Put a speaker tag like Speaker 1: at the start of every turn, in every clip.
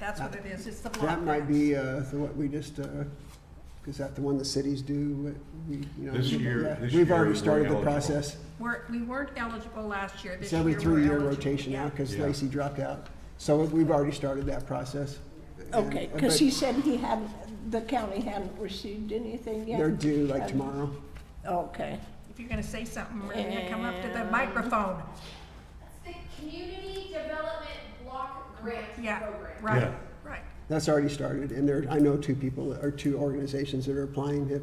Speaker 1: That's what it is, it's the block
Speaker 2: That might be,
Speaker 1: grants.
Speaker 2: uh, the, what we just, uh, is that the one the cities do? What we- you know,
Speaker 3: This
Speaker 2: we-
Speaker 3: year-
Speaker 2: yeah,
Speaker 3: this
Speaker 2: We've
Speaker 3: year
Speaker 2: already
Speaker 3: we're
Speaker 2: started the
Speaker 3: eligible.
Speaker 2: process.
Speaker 1: We're, we weren't eligible last year, this
Speaker 2: It's
Speaker 1: year we're
Speaker 2: every
Speaker 1: eligible.
Speaker 2: three-year rotation now,
Speaker 1: yeah.
Speaker 2: because
Speaker 3: Yeah.
Speaker 2: Lacy dropped out. So we've already started that process. And- uh,
Speaker 4: Okay,
Speaker 2: but
Speaker 4: because he said he hadn't, the county hadn't received anything yet?
Speaker 2: They're due like tomorrow.
Speaker 4: Okay.
Speaker 1: If you're gonna say something, Maria, come up to the microphone.
Speaker 5: It's the Community Development Block Grant
Speaker 1: Yeah,
Speaker 5: Program.
Speaker 1: right,
Speaker 3: Yeah.
Speaker 1: right.
Speaker 2: That's already started, and there, I know two people, or two organizations that are applying. If,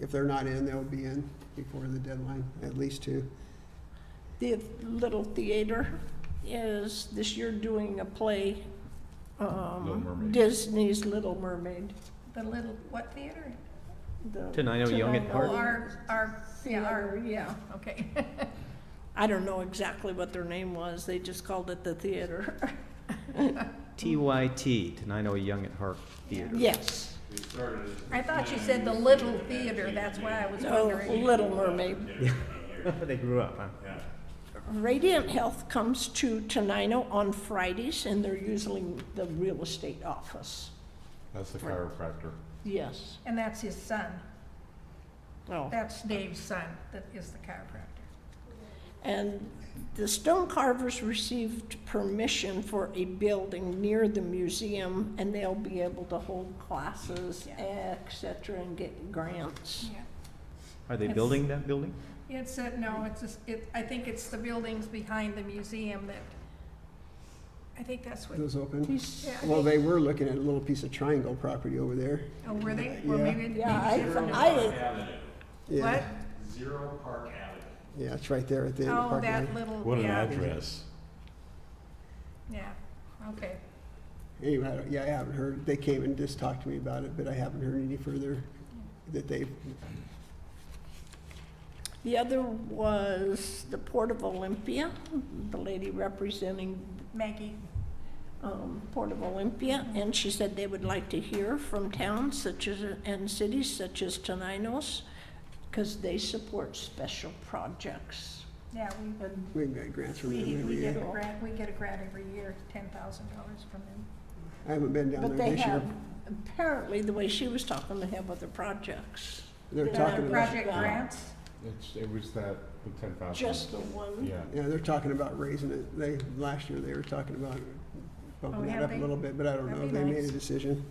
Speaker 2: if they're not in, they'll be in before the deadline, at least two.
Speaker 4: The Little Theater is this year doing a play,
Speaker 3: Little
Speaker 4: um,
Speaker 3: Mermaid.
Speaker 4: Disney's Little Mermaid.
Speaker 1: The little, what theater?
Speaker 4: the
Speaker 6: Tenino Young at
Speaker 4: Tenino
Speaker 6: Heart.
Speaker 1: Oh, our, our, yeah,
Speaker 4: Theater,
Speaker 1: our,
Speaker 4: yeah.
Speaker 1: okay.
Speaker 4: I don't know exactly what their name was, they just called it the theater.
Speaker 6: TYT, Tenino Young at Heart Theater.
Speaker 4: Yes,
Speaker 1: I thought you said the little theater, that's why I was
Speaker 4: no,
Speaker 1: wondering.
Speaker 4: Little Mermaid.
Speaker 6: They grew up, huh?
Speaker 4: Radiant Health comes to Tenino on Fridays, and they're usually the real estate office.
Speaker 3: That's the chiropractor.
Speaker 4: Yes,
Speaker 1: And that's his son,
Speaker 4: oh.
Speaker 1: that's Dave's son, that is the chiropractor.
Speaker 4: And the stone carvers received permission for a building near the museum, and they'll be able to hold classes, et cetera, and get grants.
Speaker 1: Yeah.
Speaker 6: Are they
Speaker 1: Yes.
Speaker 6: building that building?
Speaker 1: It's, a- no, it's, a- it, I think it's the buildings behind the museum that, I think that's what,
Speaker 2: Those open?
Speaker 4: He's-
Speaker 1: yeah, I
Speaker 2: Well,
Speaker 1: think-
Speaker 2: they were looking at a little piece of triangle property over there.
Speaker 1: oh, were they, or
Speaker 2: yeah.
Speaker 1: maybe, maybe
Speaker 4: Yeah, I,
Speaker 1: different.
Speaker 4: I,
Speaker 2: Yeah.
Speaker 1: What?
Speaker 7: Zero Park Avenue.
Speaker 2: Yeah, it's right there at the end of
Speaker 1: Oh,
Speaker 2: Park Lane.
Speaker 1: that little,
Speaker 3: What an
Speaker 1: yeah,
Speaker 3: address.
Speaker 1: yeah, okay.
Speaker 2: Anyway, I don't- yeah, I haven't heard, they came and just talked to me about it, but I haven't heard any further that they,
Speaker 4: the other was the Port of Olympia, the lady representing,
Speaker 1: Maggie,
Speaker 4: um, Port of Olympia, and she said they would like to hear from towns such as, and cities such as Tenino's, because they support special projects.
Speaker 1: yeah,
Speaker 4: And
Speaker 2: we got grants from
Speaker 1: we, we,
Speaker 2: them every
Speaker 1: we get a
Speaker 2: year.
Speaker 4: year.
Speaker 1: grant, we get a grant every year, ten thousand dollars from them.
Speaker 2: I haven't been down
Speaker 4: But
Speaker 2: there
Speaker 4: they
Speaker 2: this year.
Speaker 4: have, apparently, the way she was talking, they have other projects.
Speaker 2: They're
Speaker 4: they
Speaker 2: talking
Speaker 4: have
Speaker 2: about,
Speaker 4: project-
Speaker 1: Project
Speaker 4: Yeah.
Speaker 1: grants,
Speaker 3: It's, it was that, the ten thousand.
Speaker 4: Just the one?
Speaker 3: Yeah.
Speaker 2: yeah, they're talking about raising it. They, last year, they were talking about
Speaker 1: Oh,
Speaker 2: bumping that
Speaker 1: have
Speaker 2: up a
Speaker 1: they?
Speaker 2: little bit, but I don't know.
Speaker 1: That'd
Speaker 2: They
Speaker 1: be
Speaker 2: made a
Speaker 1: nice.
Speaker 2: decision.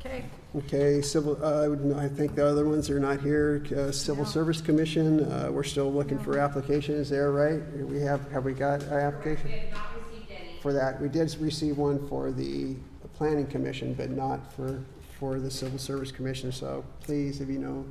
Speaker 1: okay,
Speaker 2: Okay, civil, uh, I would- no, I think the other ones are not here. Uh, Civil
Speaker 1: No.
Speaker 2: Service Commission, uh, we're still looking for
Speaker 1: No.
Speaker 2: applications there, right? We have, have we got an application?
Speaker 5: We have not received any.
Speaker 2: for that. We did receive one for the Planning Commission, but not for, for the Civil Service Commission. So please, if you know,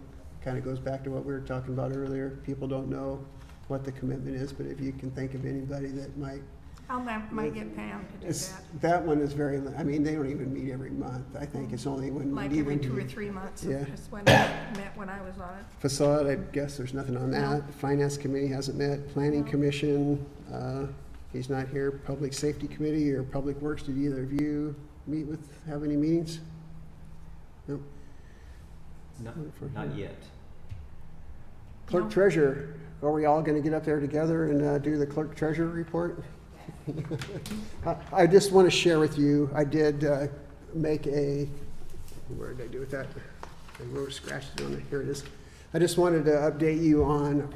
Speaker 2: kind of goes back to what we were talking about earlier. People don't know what the commitment is, but if you can think of anybody that might.
Speaker 1: I'll, ma- might get Pam to do
Speaker 2: It's,
Speaker 1: that,
Speaker 2: that one is very, I mean, they don't even meet every month. I think it's only when we
Speaker 1: like
Speaker 2: need
Speaker 1: every two or
Speaker 2: them.
Speaker 1: three months,
Speaker 2: Yeah.
Speaker 1: is when I met when I was on it.
Speaker 2: Facade, I guess there's nothing on
Speaker 1: No.
Speaker 2: that. Finance Committee hasn't met. Planning
Speaker 1: No.
Speaker 2: Commission, uh, he's not here. Public Safety Committee or Public Works, did either of you meet with, have any meetings?
Speaker 6: Not,
Speaker 2: For
Speaker 6: not
Speaker 2: her.
Speaker 6: yet.
Speaker 2: Clerk
Speaker 1: No.
Speaker 2: treasurer, are we all going to get up there together and uh, do the clerk treasurer report? I- I just want to share with you, I did uh, make a, where did I do with that? I wrote, scratched it on it, here it is. I just wanted to update you on,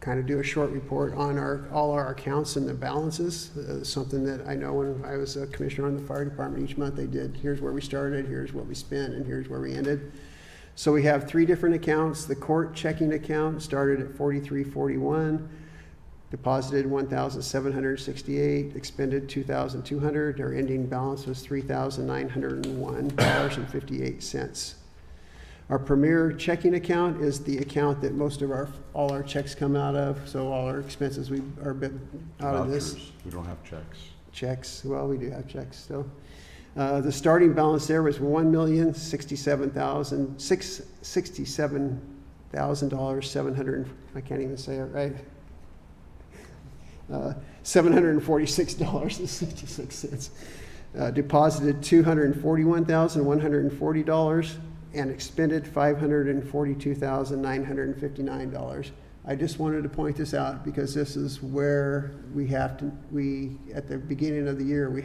Speaker 2: kind of do a short report on our, all our accounts and the balances. Uh, Something that I know when I was a commissioner on the fire department, each month they did, here's where we started, here's what we spent, and here's where we ended. So we have three different accounts. The court checking account started at forty-three forty-one, deposited one thousand seven hundred sixty-eight, expended two thousand two hundred. Our ending balance was three thousand nine hundred and one dollars and fifty-eight cents. Our premier checking account is the account that most of our, all our checks come out of, so all our expenses we are bit out of this
Speaker 3: Vouchers. We don't have checks.
Speaker 2: checks, well, we do have checks still. Uh, The starting balance there was one million, sixty-seven thousand, six, sixty-seven thousand dollars, seven hundred, I can't even say it right. Uh, Seven hundred and forty-six dollars and sixty-six cents. uh, Deposited two hundred and forty-one thousand, one hundred and forty dollars, and expended five hundred and forty-two thousand, nine hundred and fifty-nine dollars. I just wanted to point this out because this is where we have to, we, at the beginning of the year, we